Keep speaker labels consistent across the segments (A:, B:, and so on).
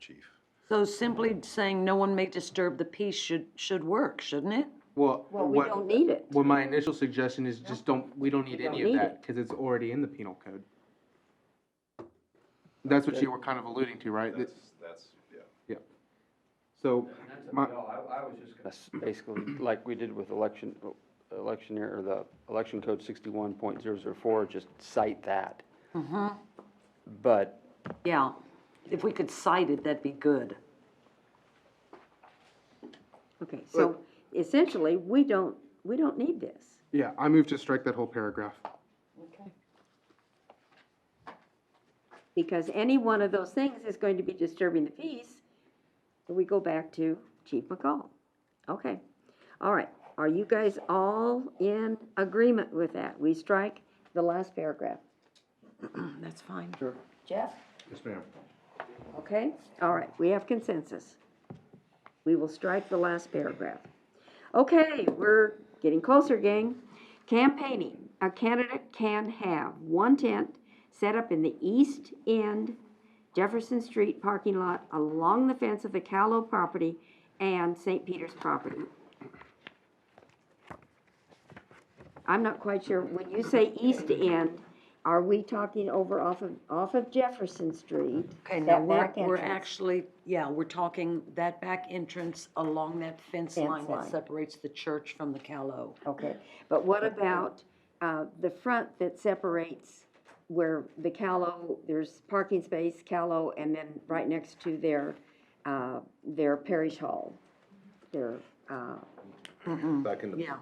A: chief.
B: So simply saying no one may disturb the peace should, should work, shouldn't it?
C: Well,
D: Well, we
C: what,
D: don't need it.
C: what my initial suggestion is just don't, we don't need
D: We don't
C: any of
D: need
C: that, cause it's already in the penal code. That's what you were kind of alluding to, right? That-
A: That's, that's, yeah.
C: Yeah. So, my,
E: That's basically like we did with election, electioneer, or the election code sixty-one point zero zero four, just cite that. But
B: Yeah, if we could cite it, that'd be good.
D: Okay, so essentially, we don't, we don't need this.
C: yeah, I move to strike that whole paragraph.
D: Okay. Because any one of those things is going to be disturbing the peace. We go back to Chief McCall. Okay, all right. Are you guys all in agreement with that? We strike the last paragraph.
B: That's fine.
D: Jeff?
A: Yes, ma'am.
D: Okay, all right, we have consensus. We will strike the last paragraph. Okay, we're getting closer, gang. Campaigning, a candidate can have one tent set up in the east end Jefferson Street parking lot along the fence of the Callow property and St. Peter's property. I'm not quite sure, when you say east end, are we talking over off of, off of Jefferson Street?
B: Okay, now
D: that
B: we're,
D: back
B: we're
D: entrance?
B: actually, yeah, we're talking that back entrance along that fence
D: Fence
B: line
D: line.
B: that separates the church from the callow.
D: Okay, but what about, uh, the front that separates where the Callow, there's parking space, Callow, and then right next to their, uh, their parish hall? Their, uh,
A: Back in the
B: Yeah,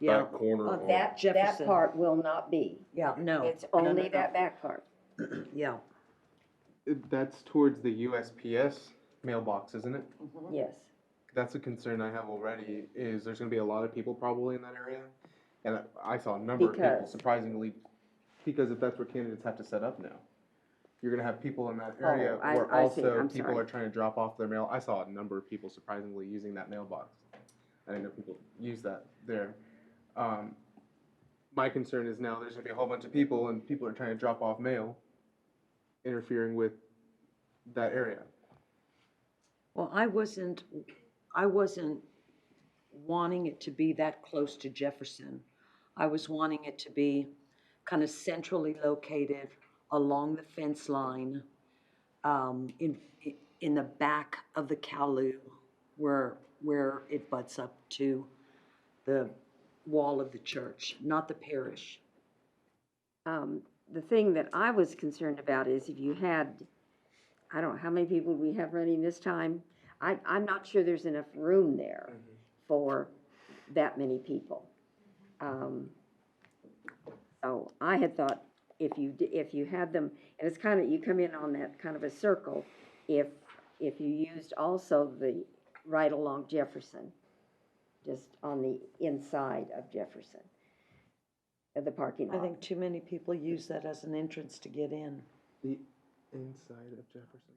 B: yeah,
A: back corner.
B: Uh,
A: on-
D: that, that
B: Jefferson.
D: part will not be.
B: yeah, no.
D: It's
B: no, no,
D: only
B: no,
D: that back part.
B: Yeah,
C: That's towards the USPS mailbox, isn't it?
D: Yes.
C: That's a concern I have already, is there's gonna be a lot of people probably in that area. And I- I saw a number of people
D: Because-
C: surprisingly, because if that's where candidates have to set up now. You're gonna have people in that
D: Oh,
C: area
D: I-
C: where
D: I see.
C: also
D: I'm
C: people
D: sorry.
C: are trying to drop off their mail. I saw a number of people surprisingly using that mailbox. I didn't know people use that there. Um, my concern is now there's gonna be a whole bunch of people and people are trying to drop off mail, interfering with that area.
B: well, I wasn't, I wasn't wanting it to be that close to Jefferson. I was wanting it to be kind of centrally located along the fence line, um, in, in the back of the Kowloon where, where it butts up to the wall of the church, not the parish.
D: Um, the thing that I was concerned about is if you had, I don't know, how many people we have running this time? I, I'm not sure there's enough room there for that many people. Um, So I had thought if you, d- if you had them, and it's kind of, you come in on that kind of a circle, if, if you used also the right along Jefferson, just on the inside of Jefferson, of the parking lot.
B: I think too many people use that as an entrance to get in.
C: The inside of Jefferson.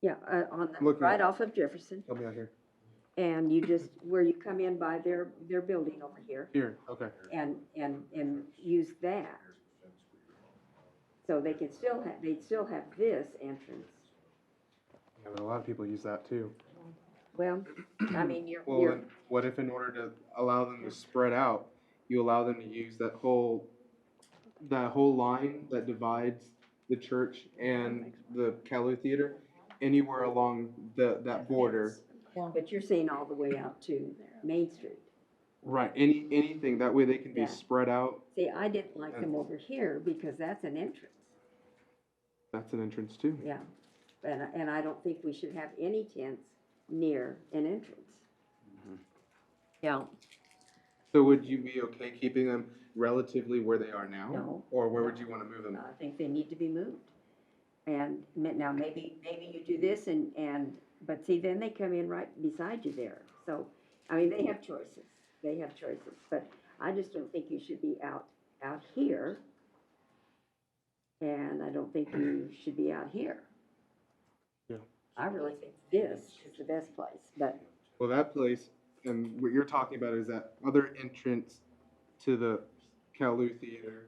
D: Yeah, uh, on the,
C: Looking
D: right
C: at-
D: off of Jefferson,
C: Help me out here.
D: and you just, where you come in by their, their building over here,
C: Here, okay.
D: and, and, and use that. So they could still have, they'd still have this entrance.
C: Yeah, but a lot of people use that too.
D: Well, I mean, you're,
C: Well,
D: you're,
C: then, what if in order to allow them to spread out, you allow them to use that whole, that whole line that divides the church and the Calhoun Theater, anywhere along the, that border?
D: but you're seeing all the way out to Main Street.
C: Right, any, anything, that way they can
D: Yeah.
C: be spread out,
D: See, I didn't like them over here, because that's an entrance,
C: that's an entrance too.
D: yeah. And, I- and I don't think we should have any tents near an entrance.
B: Yeah,
C: So would you be okay keeping them relatively where they are now?
D: No.
C: Or where would you wanna move them?
D: I think they need to be moved. And ma- now, maybe, maybe you do this and, and, but see, then they come in right beside you there. So, I mean, they have choices, they have choices, but I just don't think you should be out, out here. And I don't think you should be out here.
C: Yeah.
D: I really think this is the best place, but,
C: Well, that place, and what you're talking about is that other entrance to the Calou Theater,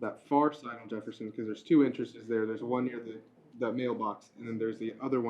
C: that far side on Jefferson, because there's two entrances there. There's one near the, the mailbox, and then there's the other one.